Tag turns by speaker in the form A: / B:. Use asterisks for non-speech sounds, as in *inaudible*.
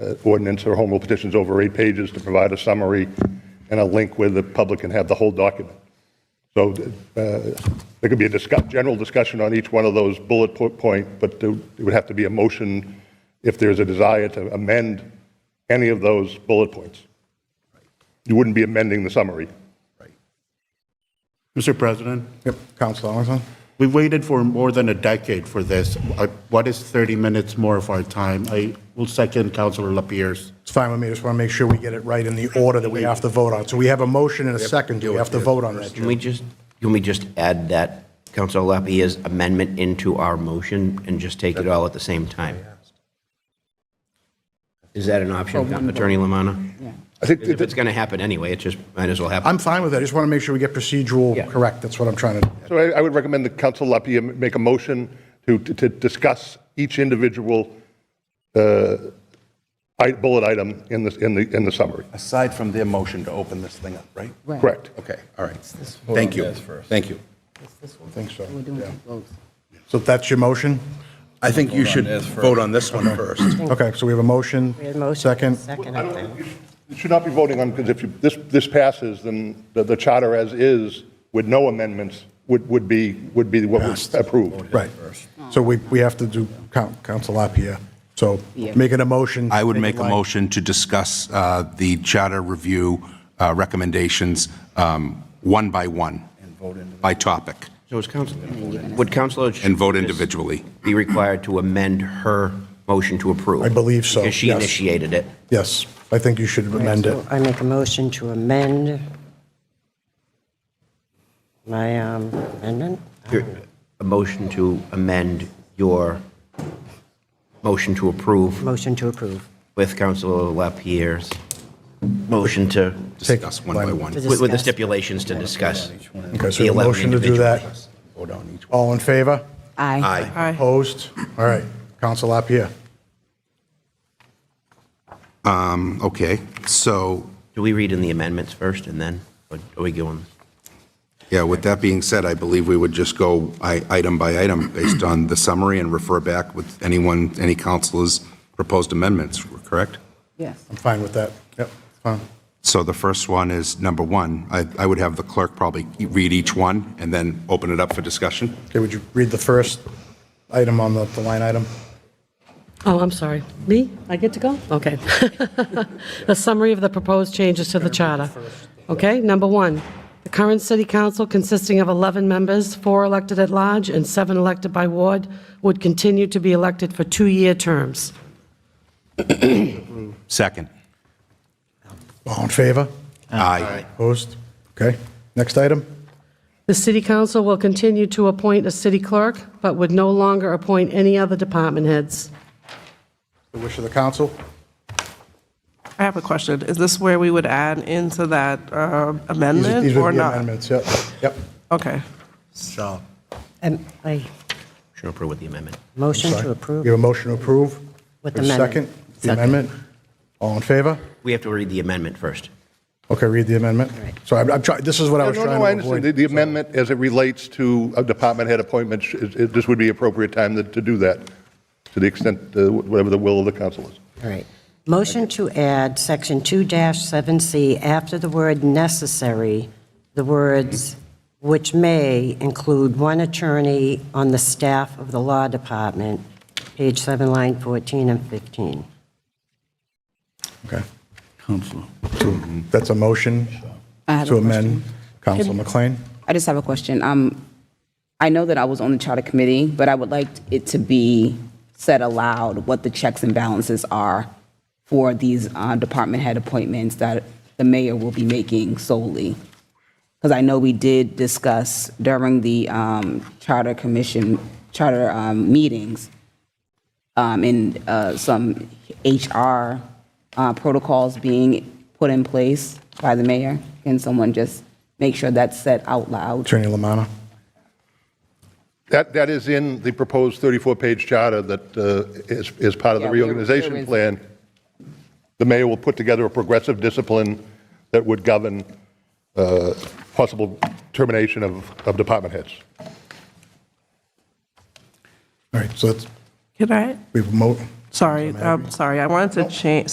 A: uh, ordinance or home rule petitions over eight pages to provide a summary and a link where the public can have the whole document. So uh, there could be a discuss, general discussion on each one of those bullet po- point, but there there would have to be a motion if there's a desire to amend any of those bullet points. You wouldn't be amending the summary.
B: Mr. President,
C: Yep, Counselor Armstrong?
B: we waited for more than a decade for this. I- What is 30 minutes more of our time? I will second Councilor Lapierre's.
C: It's fine with me, just want to make sure we get it right in the order that we have to vote on. So we have a motion and a second, do we have to vote on that?
D: Can
C: Jim?
D: we just, can we just add that Council Lapierre's amendment into our motion and just take it all at the same time? Is that an option, Attorney Lamanna?
A: I think
D: If it's going to happen anyway, it just might as well happen.
C: I'm fine with that, I just want to make sure we get procedural correct, that's what I'm trying to,
A: So I I would recommend that Council Lapia make a motion to, to discuss each individual uh, i- bullet item in the, in the, in the summary.
E: Aside from their motion to open this thing up, right?
A: Correct.
E: Okay, all right. Thank you, thank you.
C: I think so.
F: We're doing it both.
C: So that's your motion?
E: I think you should vote on this one first.
C: Okay, so we have a motion,
F: We had a motion.
C: second,
F: Second,
A: I
F: I
A: don't
F: think.
A: think You should not be voting on, because if you- this, this passes, then the, the charter as is, with no amendments, would, would be, would be what was approved.
C: right. So we, we have to do Coun- Counsel Lapierre, so
F: Yeah.
C: make it a motion.
G: I would make
C: it
G: a
C: light.
G: motion to discuss uh, the charter review uh, recommendations um, one by one, by topic,
D: So is Council, would Councilor
G: and vote individually.
D: be required to amend her motion to approve?
C: I believe so,
D: Because she
C: yes.
D: initiated it.
C: Yes, I think you should amend it.
F: So I make a motion to amend my um, amendment.
D: Your- A motion to amend your motion to approve
F: Motion to approve.
D: with Councilor Lapierre's motion to,
G: Discuss one by one.
F: To
D: with with the
F: discuss.
D: stipulations to discuss.
C: Okay, so
D: The
C: a
D: 11
C: motion to do that.
D: individuals.
E: Vote on each one.
C: All in favor?
F: Aye.
C: Opposed? All right, Counsel Lapierre.
G: Okay, so,
D: Do we read in the amendments first and then, or are we going?
G: yeah, with that being said, I believe we would just go i- item by item based on the summary and refer back with anyone, any counselor's proposed amendments, correct?
F: Yes.
C: I'm fine with that. Yep, fine.
G: So the first one is number one. I I would have the clerk probably read each one and then open it up for discussion.
C: Okay, would you read the first item on the, the line item?
H: Oh, I'm sorry. Me? I get to go? Okay. *laughs* A summary of the proposed changes to the charter. Okay, number one, the current city council consisting of 11 members, four elected at large and seven elected by ward, would continue to be elected for two-year terms.
G: Second.
C: All in favor?
G: Aye.
C: Opposed? Okay, next item?
H: The city council will continue to appoint a city clerk, but would no longer appoint any other department heads.
C: The wish of the council?
I: I have a question. Is this where we would add into that uh,
C: These are-
I: amendment
C: These are
I: or
C: the
I: not?
C: amendments, yep, yep.
I: Okay.
F: Am- I,
D: Motion to approve with the amendment.
F: motion
C: Sorry.
F: to approve.
C: We have a motion to approve?
F: With
C: We have a
F: amendment.
C: Second, the
F: Second.
C: amendment? All in favor?
D: We have to read the amendment first.
C: Okay, read the amendment.
F: Right.
C: So I'm, I'm trying, this is what I
A: No,
C: was
A: no,
C: trying to
A: no,
C: avoid.
A: I understand. The- The amendment, as it relates to a department head appointment, sh- is- is- this would be appropriate time to to do that, to the extent, uh, whatever the will of the council is.
F: All right. Motion to add section 2-7C after the word necessary, the words which may include one attorney on the staff of the law department, page 7, line 14 and 15.
C: Okay. Council. That's a motion
J: I have
C: to
J: a
C: amend. Council McLean?
J: I just have a question. Um, I know that I was on the charter committee, but I would like it to be said aloud what the checks and balances are for these uh, department head appointments that the mayor will be making solely. Because I know we did discuss during the um, charter commission, charter um, meetings, um, and uh, some HR uh, protocols being put in place by the mayor. Can someone just make sure that's said out loud?
C: Attorney Lamanna?
A: That, that is in the proposed 34-page charter that uh, is, is part of the
J: Yeah, we're-
A: reorganization
J: we're-
A: plan. The mayor will put together a progressive discipline that would govern uh, possible termination of, of department heads.
C: All right, so that's,
I: Can I,
C: we have a mo,
F: uh,
I: um, sorry, i sorry. I wanted to change,